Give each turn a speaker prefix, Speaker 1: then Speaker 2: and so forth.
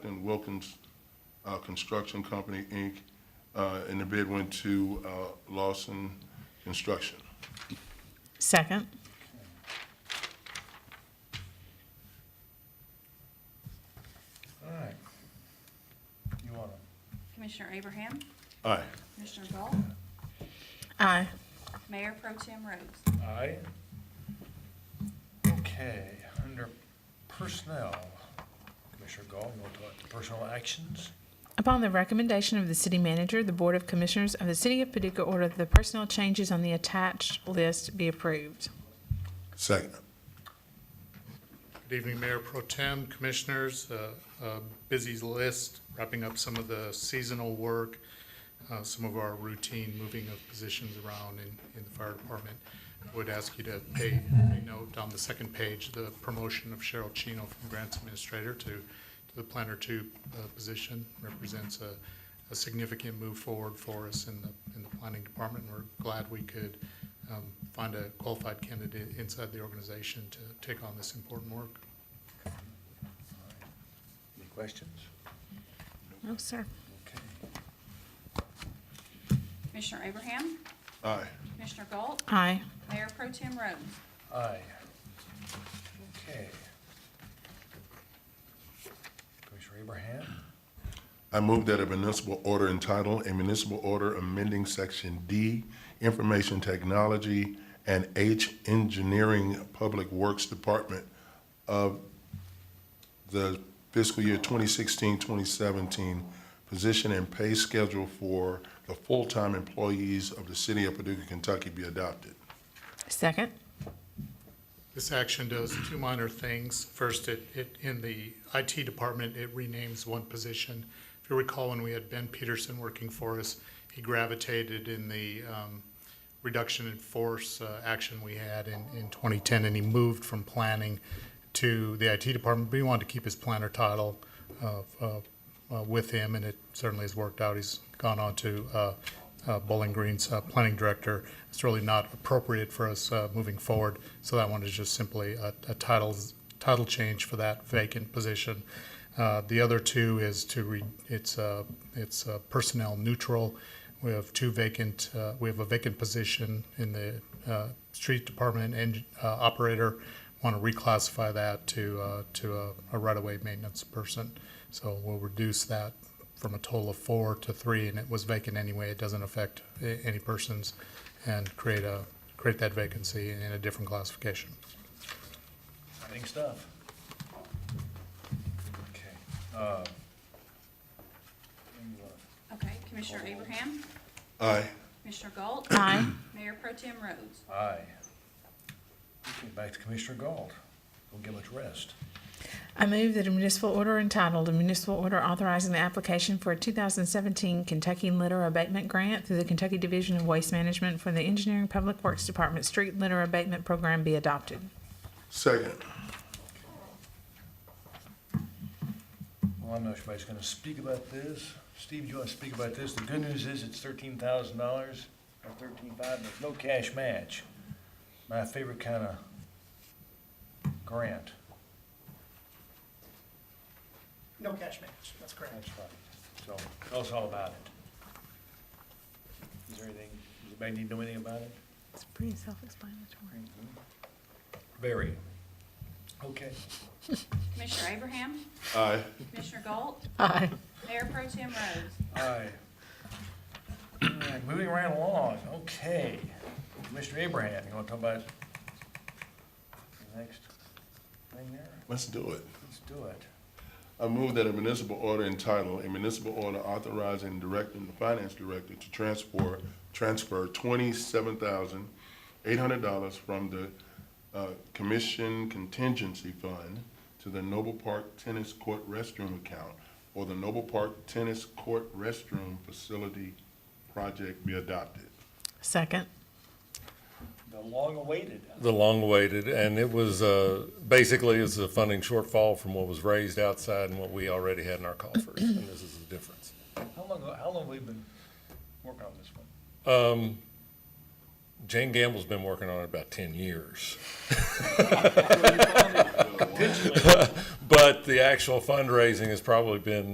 Speaker 1: and Wilkins uh, Construction Company, Inc., uh, and the bid went to uh, Lawson Construction.
Speaker 2: Second.
Speaker 3: All right. You want
Speaker 4: Commissioner Abraham,
Speaker 1: Aye.
Speaker 4: Commissioner Galt,
Speaker 2: Aye.
Speaker 4: Mayor Pro Tem Rhodes.
Speaker 3: to? Aye. Okay, under personnel, Commissioner Gall, you want to talk personal actions?
Speaker 2: Upon the recommendation of the city manager, the Board of Commissioners of the City of Paducah order that the personnel changes on the attached list be approved.
Speaker 1: Second.
Speaker 5: Good evening, Mayor Pro Tem, Commissioners. Uh, a Busy list, wrapping up some of the seasonal work, uh, some of our routine moving of positions around in, in the fire department. I Would ask you to pay a note on the second page, the promotion of Cheryl Chino from Grants Administrator to, to the Planner Two uh, position represents a, a significant move forward for us in the, in the planning department. We're glad we could um, find a qualified candidate inside the organization to take on this important work.
Speaker 3: Any questions?
Speaker 2: No, sir.
Speaker 3: Okay.
Speaker 4: Commissioner Abraham,
Speaker 1: Aye.
Speaker 4: Commissioner Galt,
Speaker 2: Aye.
Speaker 4: Mayor Pro Tem Rhodes.
Speaker 3: Aye. Okay. Commissioner Abraham,
Speaker 1: I move that a municipal order entitled, "A Municipal Order Amending Section D, Information Technology and H Engineering Public Works Department of the fiscal year 2016-2017 position and pay schedule for the full-time employees of the city of Paducah, Kentucky be adopted."
Speaker 2: Second.
Speaker 5: This action does two minor things. First, it, it, in the IT department, it renames one position. If you recall, when we had Ben Peterson working for us, he gravitated in the, um, reduction in force, uh, action we had in, in twenty ten, and he moved from planning to the IT department, but he wanted to keep his planner title, uh, uh, uh, with him, and it certainly has worked out. He's gone on to uh, uh, Bowling Green's uh, planning director. It's really not appropriate for us uh, moving forward, so that one is just simply a a title, title change for that vacant position. Uh, The other two is to, re- it's, uh, it's uh, personnel neutral. We have two vacant, uh, we have a vacant position in the uh, street department and uh, operator. Want to reclassify that to, uh, to a- a right-of-way maintenance person. So we'll reduce that from a total of four to three, and it was vacant anyway. It doesn't affect a- any persons, and create a, create that vacancy in a different classification.
Speaker 3: exciting stuff. Okay. uh, you wanna-
Speaker 4: Okay, Commissioner Abraham,
Speaker 1: Aye.
Speaker 4: Commissioner Galt,
Speaker 2: Aye.
Speaker 4: Mayor Pro Tem Rhodes.
Speaker 3: Aye. Okay, back to Commissioner Galt. Go give it rest.
Speaker 2: I move that a municipal order entitled, a municipal order authorizing the application for a 2017 Kentucky Litter Abatement Grant through the Kentucky Division of Waste Management for the Engineering Public Works Department Street Litter Abatement Program be adopted.
Speaker 1: Second.
Speaker 3: Well, I know somebody's gonna speak about this. Steve, do you wanna speak about this? The good news is it's thirteen thousand dollars, or thirteen five, there's no cash match. My favorite kinda grant.
Speaker 6: No cash match, that's correct.
Speaker 3: That's right. So, tell us all about it. Is there anything, does anybody need to know anything about it?
Speaker 2: It's pretty self-explanatory.
Speaker 3: Very. Okay.
Speaker 4: Commissioner Abraham,
Speaker 1: Aye.
Speaker 4: Commissioner Galt,
Speaker 2: Aye.
Speaker 4: Mayor Pro Tem Rhodes.
Speaker 3: Aye. All right, Moving right along, okay. Mr. Abraham, you want to talk about the next thing there?
Speaker 1: Let's do it.
Speaker 3: Let's do it.
Speaker 1: I move that a municipal order entitled, a municipal order authorizing and directing the finance director to transfer, transfer twenty-seven thousand eight hundred dollars from the, uh, commission contingency fund to the Noble Park Tennis Court Restroom account or the Noble Park Tennis Court Restroom Facility Project be adopted.
Speaker 2: Second.
Speaker 3: The long-awaited.
Speaker 7: The long-awaited, and it was, uh, basically, it's a funding shortfall from what was raised outside and what we already had in our coffers, and this is the difference.
Speaker 3: How long, how long have we been working on this one?
Speaker 7: Um, Jane Gamble's been working on it about ten years. But the actual fundraising has probably been